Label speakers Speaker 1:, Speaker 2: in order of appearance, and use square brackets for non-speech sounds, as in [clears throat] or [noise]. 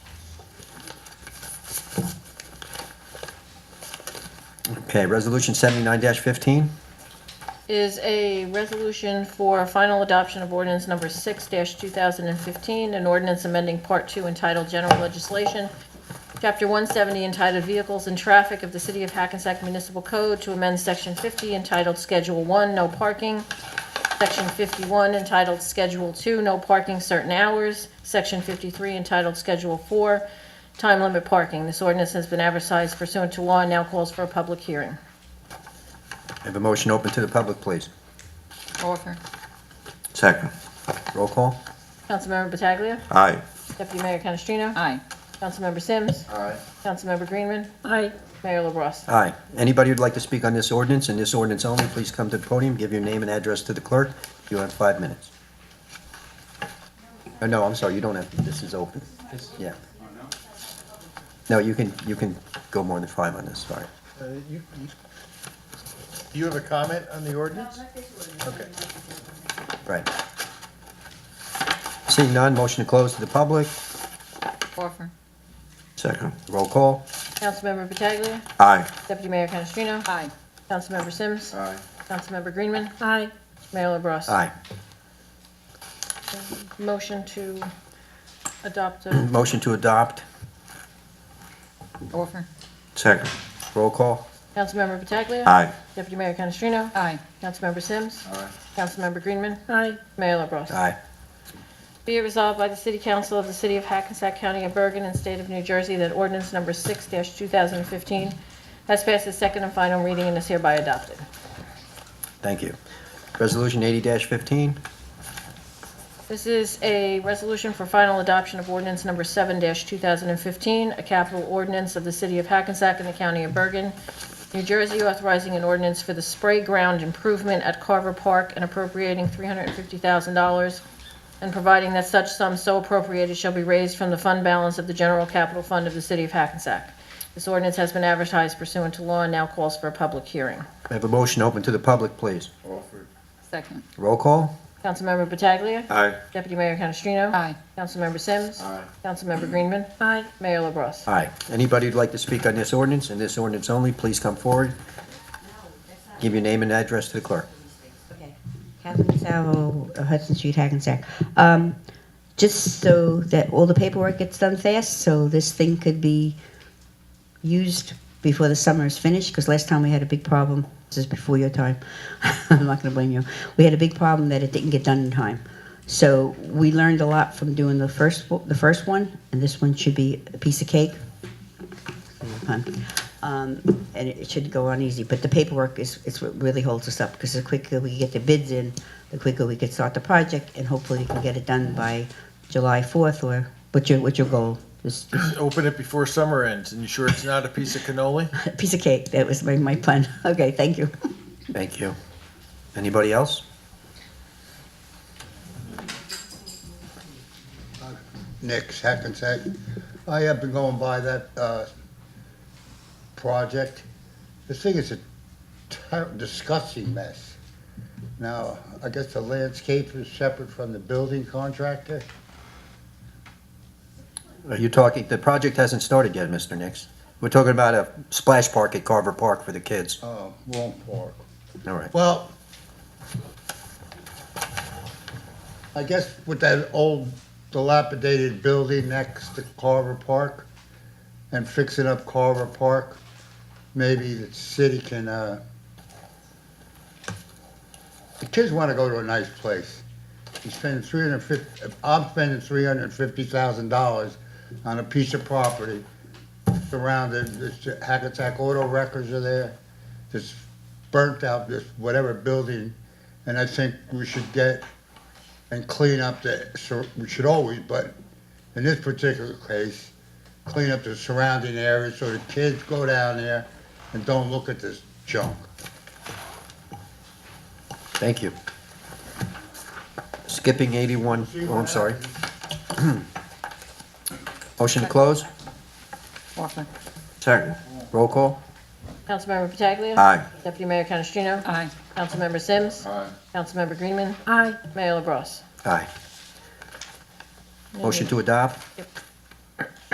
Speaker 1: Okay, Resolution 79-15.
Speaker 2: is a resolution for final adoption of ordinance number 6-2015, an ordinance amending Part 2 entitled General Legislation, Chapter 170 entitled Vehicles and Traffic of the City of Hackensack Municipal Code to amend Section 50 entitled Schedule 1, No Parking, Section 51 entitled Schedule 2, No Parking Certain Hours, Section 53 entitled Schedule 4, Time Limit Parking. This ordinance has been advertised pursuant to law and now calls for a public hearing.
Speaker 1: Have a motion open to the public, please.
Speaker 2: Orford.
Speaker 1: Second. Roll call?
Speaker 2: Councilmember Pataglia.
Speaker 1: Aye.
Speaker 2: Deputy Mayor Canestrino?
Speaker 3: Aye.
Speaker 2: Councilmember Sims?
Speaker 1: Aye.
Speaker 2: Councilmember Greenman?
Speaker 3: Aye.
Speaker 2: Mayor LaBrus?
Speaker 1: Aye. Anybody who'd like to speak on this ordinance and this ordinance only, please come to the podium, give your name and address to the clerk. You have five minutes. Oh, no, I'm sorry, you don't have, this is open. Yeah. No, you can, you can go more than five on this, sorry.
Speaker 4: Uh, you- you- Do you have a comment on the ordinance? Okay.
Speaker 1: Right. Seeing none, motion to close to the public.
Speaker 2: Orford.
Speaker 1: Second. Roll call?
Speaker 2: Councilmember Pataglia?
Speaker 1: Aye.
Speaker 2: Deputy Mayor Canestrino?
Speaker 3: Aye.
Speaker 2: Councilmember Sims?
Speaker 1: Aye.
Speaker 2: Councilmember Greenman?
Speaker 3: Aye.
Speaker 2: Mayor LaBrus?
Speaker 1: Aye.
Speaker 2: Motion to adopt uh, the
Speaker 1: Motion to adopt.
Speaker 3: Orford.
Speaker 1: Second. Roll call?
Speaker 2: Councilmember Pataglia?
Speaker 1: Aye.
Speaker 2: Deputy Mayor Canestrino?
Speaker 3: Aye.
Speaker 2: Councilmember Sims?
Speaker 1: Aye.
Speaker 2: Councilmember Greenman?
Speaker 3: Aye.
Speaker 2: Mayor LaBrus?
Speaker 1: Aye.
Speaker 2: Be it resolved by the City Council of the City of Hackensack County of Bergen and State of New Jersey that ordinance number 6-2015 has passed its second and final reading and is hereby adopted.
Speaker 1: Thank you. Resolution 80-15.
Speaker 2: This is a resolution for final adoption of ordinance number 7-2015, a capital ordinance of the City of Hackensack and the County of Bergen, New Jersey, authorizing an ordinance for the spray ground improvement at Carver Park and appropriating $350,000 and providing that such sum so appropriated shall be raised from the fund balance of the general capital fund of the City of Hackensack. This ordinance has been advertised pursuant to law and now calls for a public hearing.
Speaker 1: May I have a motion open to the public, please?
Speaker 3: Second.
Speaker 1: Roll call?
Speaker 2: Councilmember Pataglia.
Speaker 1: Aye.
Speaker 2: Deputy Mayor Canestrino.
Speaker 3: Aye.
Speaker 2: Councilmember Sims.
Speaker 1: Aye.
Speaker 2: Councilmember Greenman.
Speaker 3: Aye.
Speaker 2: Mayor LaBrus.
Speaker 1: Aye. Anybody who'd like to speak on this ordinance and this ordinance only, please come forward. Give your name and address to the clerk.
Speaker 5: Okay, Catherine Salvo, Hudson Street, Hackensack. Um, Just so that all the paperwork gets done fast, so this thing could be used before the summer is finished, because last time we had a big problem, this is before your time, [laughs] I'm not gonna blame you. We had a big problem that it didn't get done in time. So we learned a lot from doing the first, o- the first one, and this one should be a piece of cake. Um, And it it should go on easy, but the paperwork is, is what really holds us up, because the quicker we get the bids in, the quicker we could start the project, and hopefully we can get it done by July fourth, or, what's your, what's your goal? This, [laughs] this
Speaker 4: Open it before summer ends, and you sure it's not a piece of cannoli?
Speaker 5: piece of cake. That was my, my pun. [laughs] Okay, thank you.
Speaker 1: Thank you. Anybody else?
Speaker 6: Nick's Hackensack. I have been going by that uh, project. This thing is a ter- disgusting mess. Now, I guess the landscape is separate from the building contractor.
Speaker 1: Are you talking, the project hasn't started yet, Mr. Nix. We're talking about a splash park at Carver Park for the kids.
Speaker 6: Oh, wrong part.
Speaker 1: All right.
Speaker 6: Well, I guess with that old dilapidated building next to Carver Park and fixing up Carver Park, maybe the city can, uh, the kids want to go to a nice place. You spend three hundred fifty, I'm spending three hundred and fifty thousand dollars on a piece of property surrounded, this Hackensack Auto Records are there, this burnt out this whatever building, and I think we should get and clean up the, sur- we should always, but in this particular case, clean up the surrounding areas so the kids go down there and don't look at this junk.
Speaker 1: Thank you. Skipping 81, oh, I'm sorry. [clears throat] Motion to close?
Speaker 3: Orford.
Speaker 1: Second. Roll call?
Speaker 2: Councilmember Pataglia.
Speaker 1: Aye.
Speaker 2: Deputy Mayor Canestrino.
Speaker 3: Aye.
Speaker 2: Councilmember Sims. Councilmember Greenman.
Speaker 3: Aye.
Speaker 2: Mayor LaBrus.
Speaker 1: Aye. Motion to adopt?
Speaker 2: Yep.